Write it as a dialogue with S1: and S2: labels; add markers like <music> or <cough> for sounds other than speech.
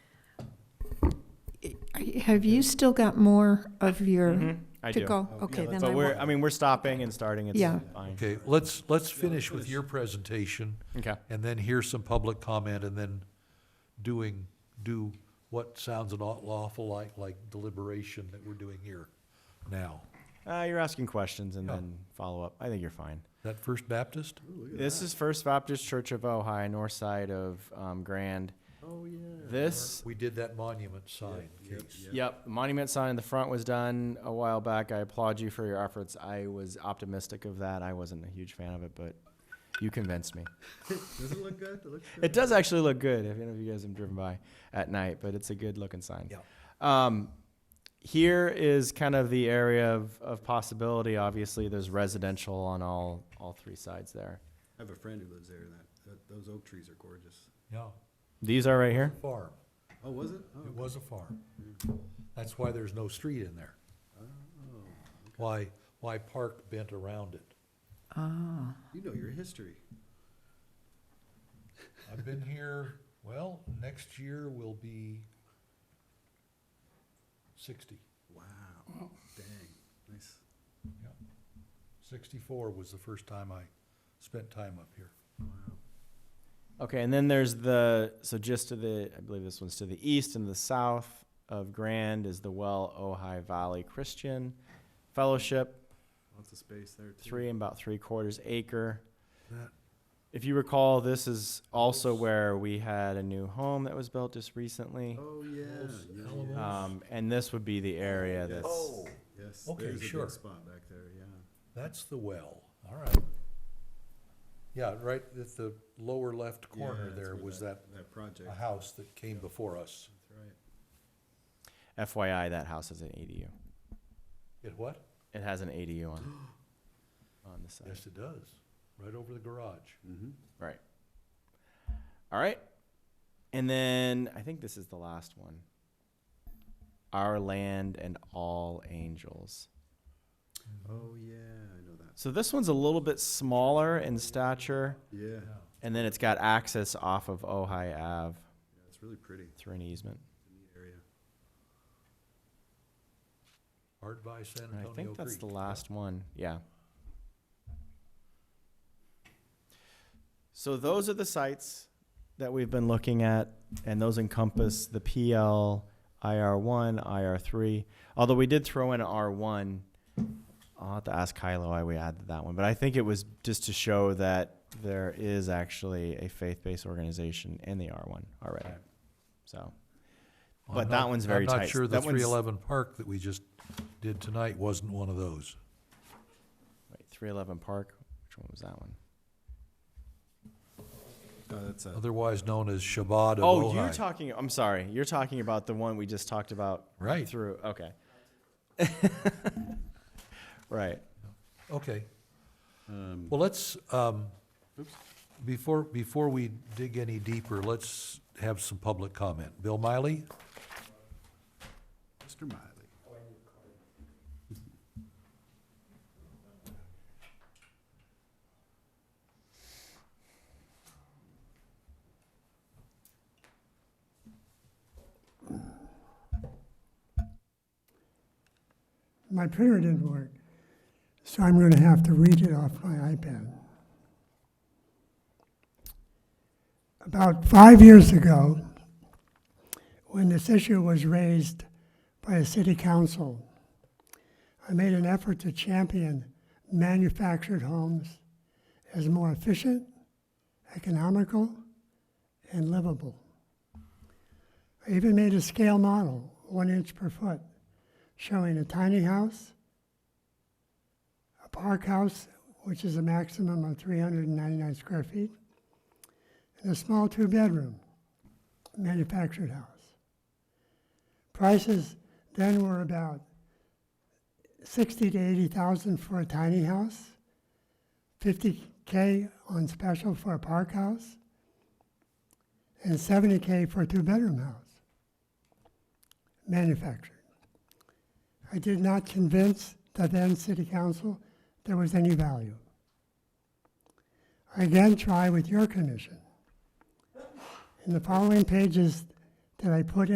S1: have you still got more of your
S2: Mhm, I
S1: to
S2: do.
S1: go? Okay, then I
S2: So we're,
S1: won't.
S2: I mean, we're stopping and starting, it's
S1: Yeah.
S2: fine.
S3: Okay, let's, let's finish with your presentation
S2: Okay,
S3: and then hear some public comment and then doing, do what sounds an aw- awful like, like deliberation that we're doing here now.
S2: uh, you're asking questions and
S3: Yeah.
S2: then follow up, I think you're fine.
S3: That First Baptist?
S2: This is First Baptist Church of Ojai, north side of, um, Grand.
S4: Oh, yeah.
S2: This,
S3: We did that monument sign case.
S2: yep, monument sign in the front was done a while back, I applaud you for your efforts, I was optimistic of that, I wasn't a huge fan of it, but you convinced me.
S4: Does it look good? It looks good.
S2: It does actually look good. If any of you guys have driven by at night, but it's a good looking sign.
S3: Yeah.
S2: Um, here is kind of the area of, of possibility. Obviously, there's residential on all all three sides there.
S4: I have a friend who lives there, and that, that, those oak trees are gorgeous.
S3: Yeah,
S2: These are right here.
S3: farm.
S4: Oh, was it? Oh,
S3: It was a farm. That's why there's no street in there.
S4: oh.
S3: Why, why park bent around it?
S1: Ah,
S4: You know your history.
S3: I've been here, well, next year will be sixty.
S4: Wow. Dang. Nice.
S3: Yeah. Sixty-four was the first time I spent time up here.
S4: Wow.
S2: Okay, and then there's the so just to the I believe this one's to the east and the south of Grand is the Well Ojai Valley Christian Fellowship,
S4: Lots of space there, too.
S2: three and about three quarters acre.
S3: That,
S2: If you recall, this is also where we had a new home that was built just recently.
S4: Oh, yeah.
S3: Those
S4: yeah,
S3: elbows.
S4: yeah.
S2: Um, and this would be the area that's.
S3: oh,
S4: Yes.
S3: Okay,
S4: there's a big
S3: sure.
S4: spot back there, yeah.
S3: that's the well, all right. Yeah, right at the lower left
S4: Yeah,
S3: corner
S4: that's
S3: there
S4: where
S3: was that,
S4: That project.
S3: a house that came before us.
S4: That's right.
S2: FYI, that house has an ADU.
S3: It what?
S2: It has an ADU on on the side.
S3: Yes, it does, right over the garage.
S4: Mm-hmm.
S2: Right. All right. And then I think this is the last one. Our land and all angels.
S4: Oh, yeah. I know that.
S2: So this one's a little bit smaller in stature,
S4: Yeah.
S3: Yeah.
S2: and then it's got access off of Ojai Ave
S4: yeah it's really pretty.
S2: through an easement.
S4: It's a neat area.
S3: Art by
S2: I
S3: San Antonio Creek.
S2: think that's the last one, yeah. So those are the sites that we've been looking at, and those encompass the PL, IR1, IR3. Although we did throw in R1, I'll have to ask Kylo why we added that one, but I think it was just to show that there is actually a faith-based organization in the R1 already,
S3: Right.
S2: so.
S3: Well,
S2: But
S3: I'm
S2: that
S3: not-
S2: one's very
S3: I'm
S2: tight.
S3: not sure the
S2: That one's-
S3: three eleven park that we just did tonight wasn't one of those.
S2: Wait, 311 Park, which one was that one?
S4: Oh, that's a.
S3: Otherwise known as Shabbat of
S2: Uh, Oh,
S3: Ojai.
S2: you're talking. I'm sorry. You're talking about the one we just talked about.
S3: Right.
S2: Through. Okay. <laughs> right.
S3: Okay,
S4: Um,
S3: well, let's, um, before, before we dig any deeper, let's have some public comment. Bill Miley?
S4: Mr. Miley.
S5: My printer didn't work, so I'm going to have to read it off my iPad. About five years ago, when this issue was raised by a city council, I made an effort to champion manufactured homes as more efficient, economical, and livable. I even made a scale model, one inch per foot, showing a tiny house, a park house, which is a maximum of 399 square feet, and a small two bedroom manufactured house. Prices then were about 60 to 80,000 for a tiny house, 50K on special for a park house, and 70K for a two bedroom house. Manufactured. I did not convince the then city council there was any value. I again try with your commission. In the following pages that I put